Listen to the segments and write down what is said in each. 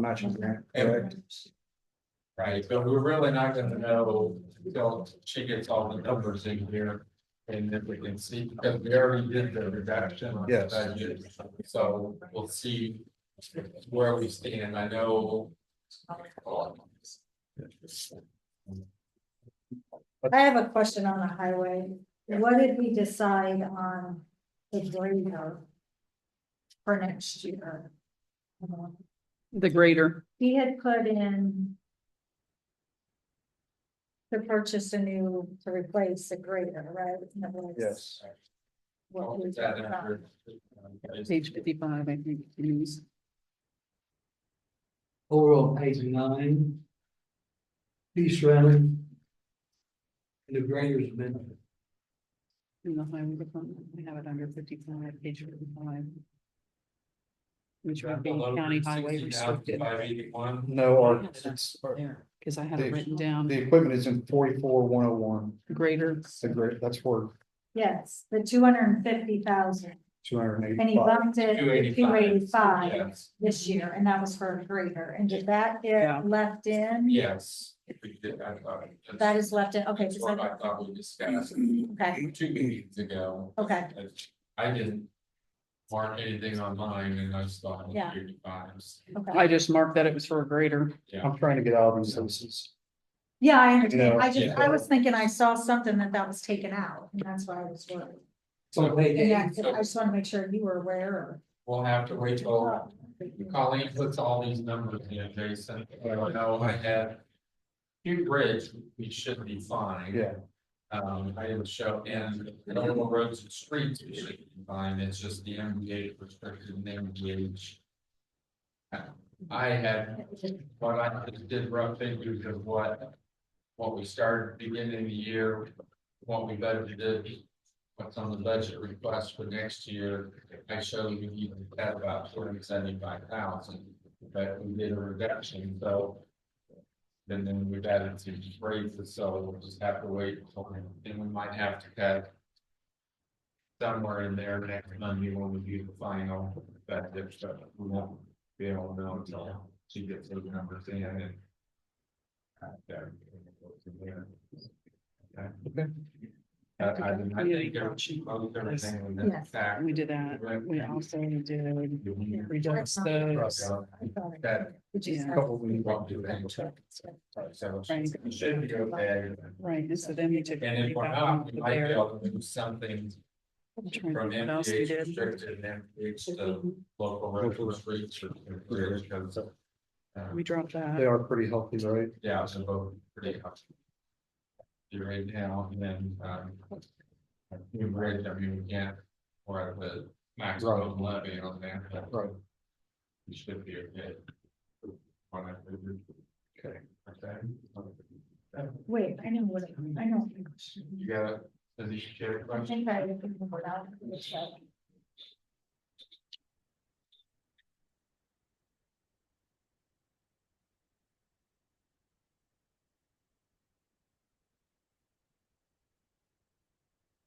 matching grant. And- correct? Right, but we're really not gonna know until she gets all the numbers in here. And if we can see, because we already did the reduction. on the Yes. budget, So we'll see where we stand, I know. I have a question on the highway. What did we decide on the grader? For next year? The greater, He had put in. To purchase a new, to replace the grader, right? And that was Yes, what we That talked about. number. page fifty-five, I think, news. Overall, page nine. East Rally. The grader's been, In the highway department, we have it under fifty-five, page fifty-five. Which would be county highway restricted. Five eighty-one, no, Yeah, or that's it's, or There, cause I have it Dave. written down, the equipment is in forty-four, one oh one, greater, the great, that's for Yes, the two hundred and fifty thousand, two hundred and and he eighty-five. bumped it two to eighty-five. two eighty-five Yes, this year, and that was for a grader, and did that Yeah. get left in? yes. We did, I thought. That is left in, okay, That's just what like, I thought we discussed okay, two meetings ago. okay, I didn't mark anything on mine and I just thought. Yeah. Times. okay. I just marked that it was for a greater, I'm trying to get out of these houses. Yeah, I understand. know, I just, yeah. I was thinking I saw something that that was taken out, and that's why I was worried. so page Yeah, eight, I just wanna make sure you were aware We'll have to wait or. till Colleen puts all these numbers in, Jason. I don't know, I had. Hugh Bridge, we should be fine. Yeah, Um, I didn't show in, normal roads and streets, we should be fine, it's just the MDA restricted and MDH. I had But I just did rough figures of what, what we started beginning of the year, what we budgeted. What's on the budget request for next year, I showed you you had about two hundred seventy-five thousand, but we did a reduction, so. And then we've added some raises, so we'll just have to wait, until then Then we might have to cut. Somewhere in there next Monday when we do the final, but there's, we won't be able to know until she gets those numbers in and. uh, there. Okay. I, I didn't, I think everything was in fact. we did that, we also did reduce those. That- Yeah. couple of weeks. Won't do that. So it should be okay. Right, and so then we took. And if we're 55 not, from we might be there. able to do something I'm trying to from think What else we MDH did? restricted and MDH to local regular streets or. or- uh, We dropped they that, are pretty healthy, right? Yeah, so both pretty much. You're right now, and then, um. We raised, I mean, we can't, or the maximum levy on that, but Right. we should be okay. On that. Okay. Okay. Wait, I know what, I know. You got it, does he share a I question? think I remember that.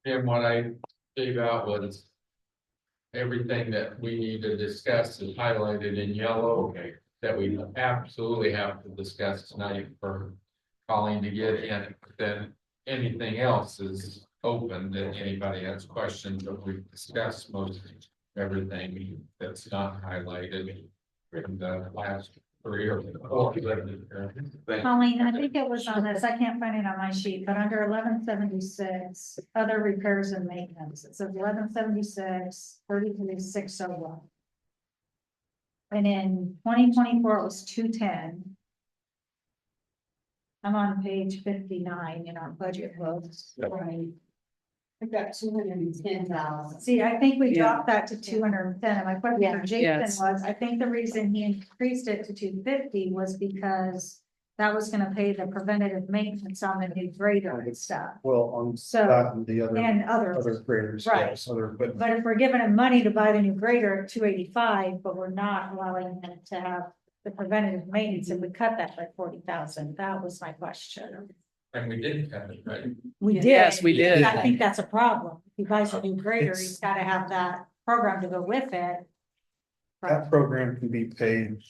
And what I gave out was. Everything that we need to discuss is highlighted in yellow, that we absolutely have to discuss tonight for. Calling to get in, then anything else is open that anybody has questions, but we've discussed most. Everything that's not highlighted in the last three or four. Thank Colleen, I think it was on this, I can't find it on my sheet, but under eleven seventy-six, other repairs and maintenance, it says 1176 33, six oh one. And in twenty twenty-four, it was two ten. I'm on page fifty-nine in our budget book. Right. I've got two hundred and ten thousand. See, I think we Yeah. dropped that to two hundred and ten, and my question Yeah. for Jason Yes. was, I think the reason he increased it to two fifty was because. That was gonna pay the preventative maintenance on the new grader and stuff, Well, on so, that and the other, and other others, graders, Right. yes, other equipment. but if we're giving him money to buy the new grader at two eighty-five, but we're not allowing him to have. The preventative maintenance, and we cut that by forty thousand, that was my question. And we did cut it, right? We did. Yes, we did. I think that's a problem, if he buys a new grader, he's gotta have that program to go with it. That program can be paid